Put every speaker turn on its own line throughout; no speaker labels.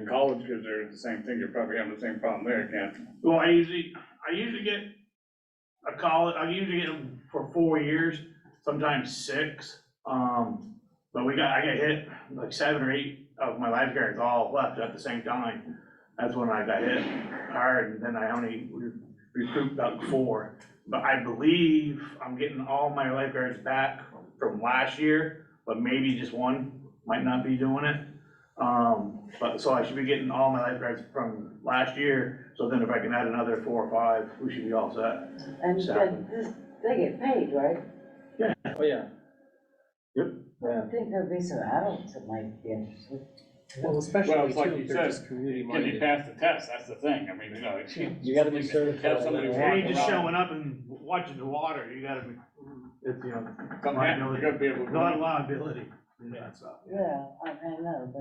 in college, because they're the same thing, you're probably having the same problem there, can't you?
Well, I usually, I usually get a college, I usually get them for four years, sometimes six. Um, but we got, I got hit like seven or eight of my lifeguards all left at the same time. That's when I got hit hard, and then I only re- recruit about four. But I believe I'm getting all my lifeguards back from last year, but maybe just one might not be doing it. Um, but, so I should be getting all my lifeguards from last year, so then if I can add another four or five, we should be all set.
And then this, they get paid, right?
Oh, yeah.
I don't think there'd be some adults that might be interested.
Well,
Well,
especially
it's like
too,
you
if they're
said,
just community
Can you
minded.
pass the test, that's the thing, I mean, you know.
You gotta be certified.
Have somebody
If
walk
you're just
around,
showing up and watching the water, you gotta be, it's, you know,
come back, you gotta be able to.
not liability, yeah, so.
Yeah, I, I know,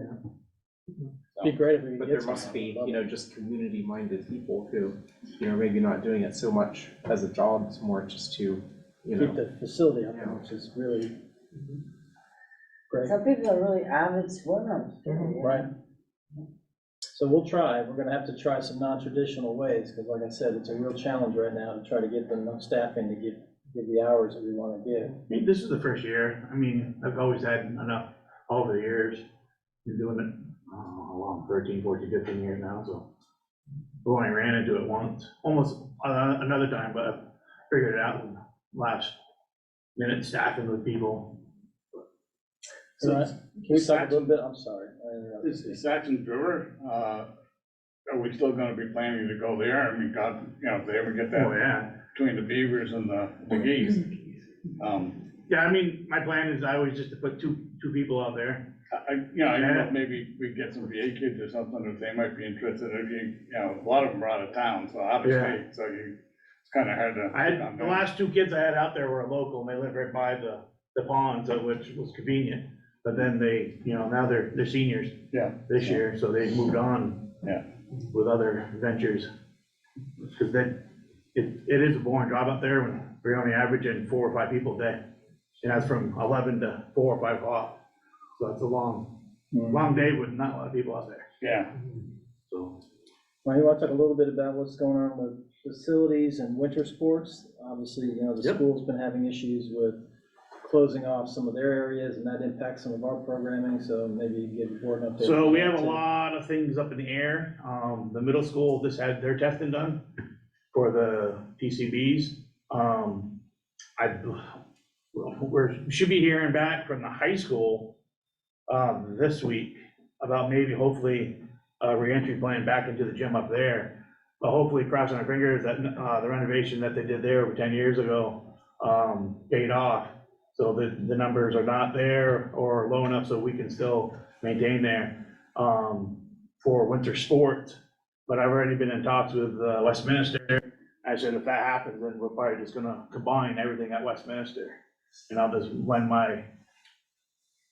but
Be great if we could
But
get
there must
some.
be,
Love
you know, just community-minded people who, you know, maybe not doing it so much as a job, it's more just to, you
Keep
know.
the facility up,
Yeah.
which is really great,
some people are really avid swimmers, too, you
Mm-hmm. right?
know?
So we'll try, we're gonna have to try some non-traditional ways, because like I said, it's a real challenge right now to try to get enough staff in to give, give the hours that we wanna give.
I think this is the first year, I mean, I've always had enough over the years, been doing it, I don't know how long, thirteen, fourteen, fifteen years now, so. I Only ran into it once, almost uh, another time, but I figured it out in last minute staffing with people.
All right, can we talk a
Satch-
little bit, I'm sorry, I interrupted
Is
you.
is Satchin Brewer, uh, are we still gonna be planning to go there, I mean, God, you know, if they ever get
Oh,
that
yeah,
between the beavers and the, the geese. Um,
yeah, I mean, my plan is always just to put two, two people out there,
I, I- you know, I don't know, if maybe we get some VA kids or something, if they might be interested, if you, you know, a lot of them are out of town, so out of
Yeah.
state, so you, it's kinda hard to.
I had, the last two kids I had out there were local, and they lived right by the, the pond, so which was convenient. But then they, you know, now they're, they're seniors
Yeah.
this year, so they moved on.
Yeah.
With other ventures. Cause then, it, it is a boring job out there, when we're only averaging four or five people a day. And that's from eleven to four or five o'clock, so that's a long, long day with not a lot of people out there,
Yeah.
so.
Well, you wanna talk a little bit about what's going on with facilities and winter sports? Obviously, you know, the
Yep.
school's been having issues with closing off some of their areas, and that impacts some of our programming, so maybe give the board an update.
So we
on
have a
that, too.
lot of things up in the air. Um, the middle school just had their testing done for the PCBs. Um, I, we're, we should be hearing back from the high school, um, this week about maybe hopefully a reentry plan back into the gym up there. But hopefully crossing our fingers that, uh, the renovation that they did there over ten years ago, um, paid off. So the, the numbers are not there or low enough so we can still maintain there, um, for winter sports. But I've already been in talks with uh, Westminster. I said, if that happens, then we're probably just gonna combine everything at Westminster. And I'll just lend my,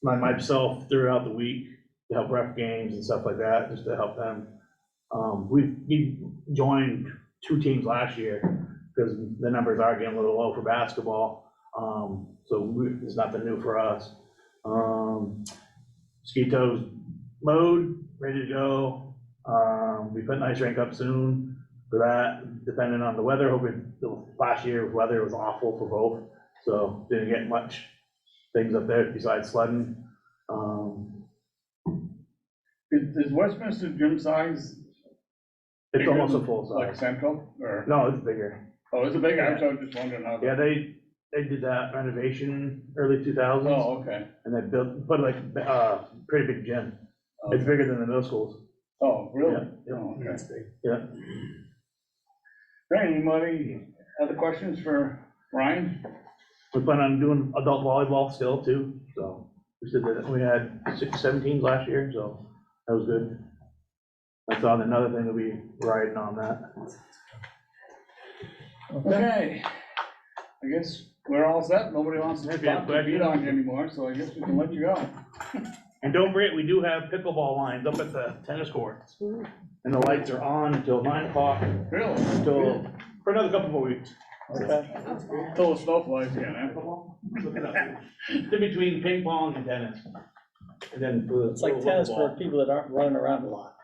lend myself throughout the week to help ref games and stuff like that, just to help them. Um, we, we joined two teams last year, because the numbers are getting a little low for basketball. Um, so we, it's nothing new for us. Um, Skeeto's mowed, ready to go. Um, we put an ice rink up soon for that, depending on the weather. Hoping, the last year's weather was awful for both, so didn't get much things up there besides sledding. Um,
Is, is Westminster gym size
It's almost a full
like
size.
central or,
No, it's bigger.
oh, it's a big, I was just wondering how.
Yeah, they, they did that renovation early two thousands,
Oh, okay.
and they built, put like, uh, pretty big gym. It's bigger than the middle schools.
Oh, really?
Yeah, yeah.
Oh, okay.
Yeah.
Right, Anybody, other questions for Ryan?
We plan on doing adult volleyball still too, so we said that we had six, seven teams last year, so that was good. That's on another thing that we riding on that.
Okay. I guess we're all set. Nobody wants to
If you
talk
have
to beat
questions.
on you anymore, so I guess we can let you go.
And don't forget, we do have pickleball lines up at the tennis courts. And the lights are on until nine o'clock,
Really?
until, for another couple more weeks.
Okay.
Till the snow flies again, eh?
Look it up. It's in between ping pong and tennis. And then.
It's like tennis for people that aren't running around a lot.